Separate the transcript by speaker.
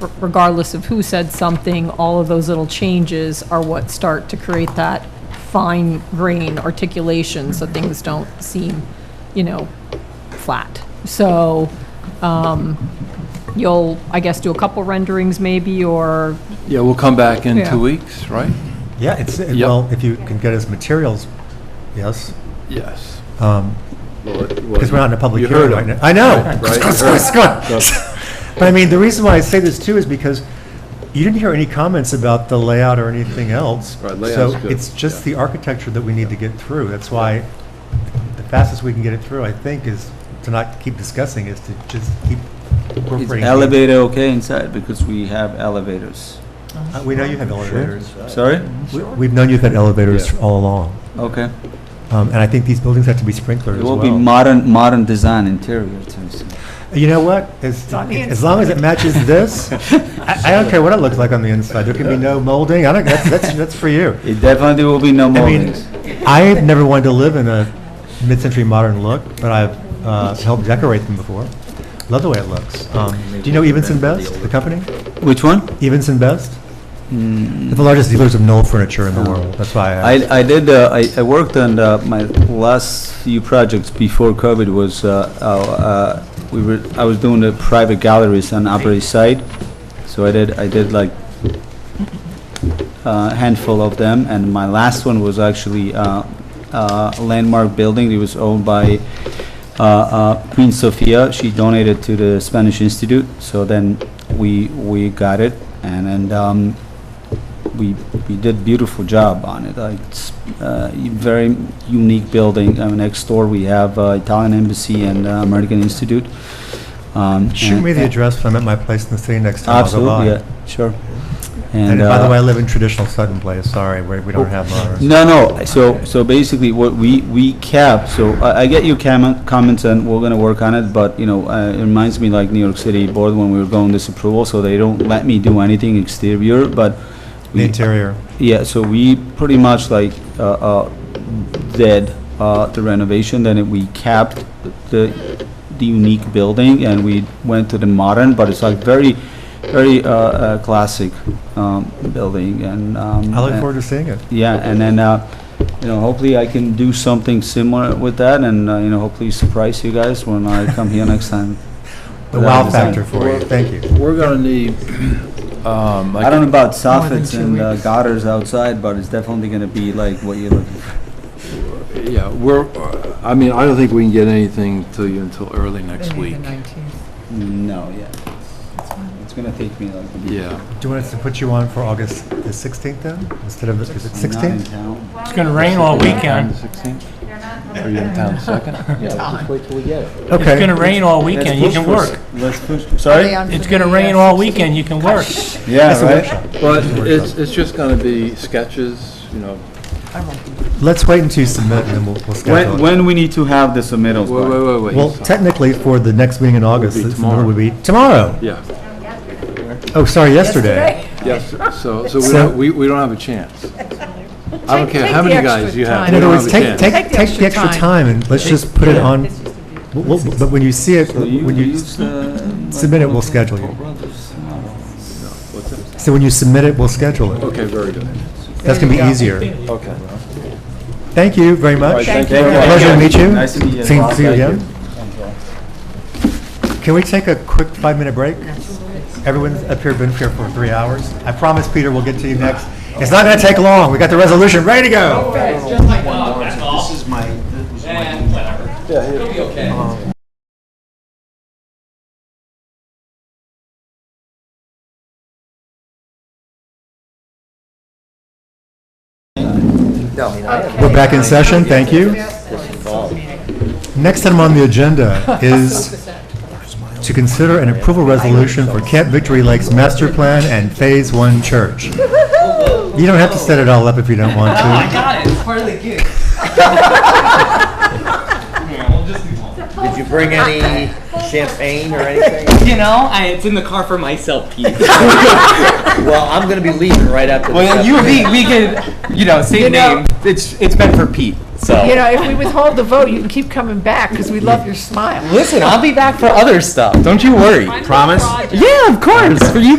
Speaker 1: r- regardless of who said something, all of those little changes are what start to create that fine grain articulation, so things don't seem, you know, flat. So, um, you'll, I guess, do a couple renderings maybe, or,
Speaker 2: Yeah, we'll come back in
Speaker 1: Yeah.
Speaker 2: two weeks, right?
Speaker 3: Yeah, it's,
Speaker 2: Yep.
Speaker 3: well, if you can get us materials, yes,
Speaker 2: Yes.
Speaker 3: because
Speaker 2: Because
Speaker 3: we're not in a public hearing right now. I know.
Speaker 2: Right,
Speaker 3: But I mean, the reason why I say this too is because you didn't hear any comments about the layout or anything else.
Speaker 2: Right, layout's
Speaker 3: So
Speaker 2: good,
Speaker 3: it's just
Speaker 2: yeah.
Speaker 3: the architecture that we need to get through. That's why the fastest we can get it through, I think, is to not keep discussing, is to just keep
Speaker 4: Is
Speaker 3: incorporating.
Speaker 4: elevator okay inside? Because we have elevators.
Speaker 3: Uh, We know you have elevators.
Speaker 4: Sorry?
Speaker 3: We- We've known you've had elevators
Speaker 2: Yeah.
Speaker 3: all along.
Speaker 4: Okay.
Speaker 3: Um, And I think these buildings have to be sprinklers
Speaker 4: It
Speaker 3: as well.
Speaker 4: will be modern, modern design interior too. so.
Speaker 3: You know what? As, as long as it matches this, I, I don't care what it looks like on the inside. There can be no molding. I don't, that's, that's, that's for you.
Speaker 4: It definitely will be no
Speaker 3: I mean,
Speaker 4: moldings.
Speaker 3: I've never wanted to live in a mid-century modern look, but I've, uh, helped decorate them before. Love the way it looks. Um, do you know Evenson Best, the company?
Speaker 4: Which one?
Speaker 3: Evenson Best? They're the largest dealers of Knoll furniture in the world. That's why I,
Speaker 4: Hmm. I, I did, uh, I, I worked on, uh, my last few projects before COVID was, uh, our, uh, we were, I was doing the private galleries on Upper East Side. So I did, I did like a handful of them, and my last one was actually, uh, uh, a landmark building. It was owned by, uh, uh, Queen Sofia. She donated to the Spanish Institute, so then we, we got it. And, and, um, we, we did beautiful job on it. Uh, It's uh, a very unique building. Uh, Next door, we have uh, Italian Embassy and uh, American Institute. Um,
Speaker 3: shoot
Speaker 4: and-
Speaker 3: me the address when I'm at my place in the city next time. I'll go by.
Speaker 4: Absolutely, yeah, sure.
Speaker 3: And by the
Speaker 4: uh, Oh,
Speaker 3: way, I live in traditional Sutton Place. Sorry, we, we don't have ours.
Speaker 4: No, no, so, so basically what we, we kept, so I, I get your comment, comments and we're gonna work on it, but, you know, uh, it reminds me like New York City Board when we were going disapproval, so they don't let me do anything exterior, but.
Speaker 3: The
Speaker 4: we-
Speaker 3: interior.
Speaker 4: Yeah, so we pretty much like uh, uh, did uh, the renovation, then it- we capped the, the unique building, and we went to the modern, but it's like very, very uh, uh, classic um, building, and.
Speaker 3: I look forward to seeing it.
Speaker 4: Yeah, and then, uh, you know, hopefully I can do something similar with that, and, uh, you know, hopefully surprise you guys when I come here next time.
Speaker 3: The
Speaker 4: Without
Speaker 3: wow
Speaker 4: design.
Speaker 3: factor for you. Thank you.
Speaker 2: We're going to need, um,
Speaker 4: I don't know
Speaker 2: like,
Speaker 4: about
Speaker 5: More than
Speaker 4: soffits
Speaker 5: two
Speaker 4: and uh,
Speaker 5: weeks.
Speaker 4: gutters outside, but it's definitely gonna be like what you're looking for.
Speaker 2: yeah, we're, I mean, I don't think we can get anything to you until early next
Speaker 5: Maybe
Speaker 2: week.
Speaker 5: The 19th.
Speaker 4: No, yeah. It's gonna take me like. a week.
Speaker 2: Yeah.
Speaker 3: Do you want us to put you on for August the 16th then, instead of, the- is it
Speaker 4: I'm not in
Speaker 3: 16th?
Speaker 4: town.
Speaker 6: It's going to rain all weekend.
Speaker 2: Are you in town second? Yeah, just wait till we get it.
Speaker 3: Okay.
Speaker 6: It's going to rain all
Speaker 4: Let's
Speaker 6: weekend, you
Speaker 4: push
Speaker 6: can
Speaker 4: for s-
Speaker 6: work.
Speaker 4: Let's push,
Speaker 5: Are they
Speaker 4: sorry?
Speaker 5: on for
Speaker 6: It's
Speaker 5: the,
Speaker 6: going to
Speaker 5: uh,
Speaker 6: rain all
Speaker 5: 16th?
Speaker 6: weekend, you can work.
Speaker 4: Yeah,
Speaker 3: a
Speaker 4: right?
Speaker 2: But it's, it's just going to be sketches, you know.
Speaker 5: I won't be
Speaker 3: Let's wait until you submit and then we'll we'll
Speaker 4: When,
Speaker 3: schedule it.
Speaker 4: when we need to have the submittals,
Speaker 2: Wait,
Speaker 4: by?
Speaker 2: wait, wait, wait.
Speaker 3: Well, technically for the next meeting in August,
Speaker 2: be
Speaker 3: it
Speaker 2: tomorrow.
Speaker 3: would be tomorrow.
Speaker 2: Yeah,
Speaker 3: Oh, sorry, yesterday.
Speaker 2: yes, so, so we
Speaker 3: So-
Speaker 2: don't, we, we don't have a chance. I don't care how
Speaker 5: take the
Speaker 2: many guys
Speaker 5: extra
Speaker 2: you have.
Speaker 5: time.
Speaker 3: In
Speaker 2: we
Speaker 3: other
Speaker 2: don't
Speaker 3: words,
Speaker 2: have a chance.
Speaker 3: take, take,
Speaker 5: Take the
Speaker 3: take the
Speaker 5: extra
Speaker 3: extra
Speaker 5: time.
Speaker 3: time and let's just put it on, we'll- we'll- but when you see it,
Speaker 4: So you
Speaker 3: when you,
Speaker 4: use, uh,
Speaker 3: submit it, we'll schedule you. so when you submit it, we'll schedule it.
Speaker 2: Okay, very good.
Speaker 3: That's gonna be easier.
Speaker 2: Okay.
Speaker 3: Thank you very much.
Speaker 4: Thank you.
Speaker 3: Pleasure to meet you.
Speaker 4: Nice to meet you.
Speaker 3: See see you
Speaker 4: Thank you.
Speaker 3: again. Can we take a quick five-minute break? Everyone's up here, been here for three hours. I promise, Peter, we'll get to you next. It's not gonna take long. We got the resolution ready to go. We're back in session. Thank you. Next item on the agenda is to consider an approval resolution for Camp Victory Lakes Master Plan and Phase One Church. You don't have to set it all up if you don't want to.
Speaker 7: Did you bring any champagne or anything?
Speaker 8: You know, I, it's in the car for myself, Pete.
Speaker 7: Well, I'm gonna be leaving right after this.
Speaker 8: well, you, we, we could, you know, same
Speaker 5: You know-
Speaker 8: name. It's it's meant for Pete. So
Speaker 5: You know, if we withhold the vote, you can keep coming back because we love your smile.
Speaker 8: listen, I'll be back for other stuff. Don't you worry.
Speaker 1: Promise?
Speaker 8: Yeah, of course. For you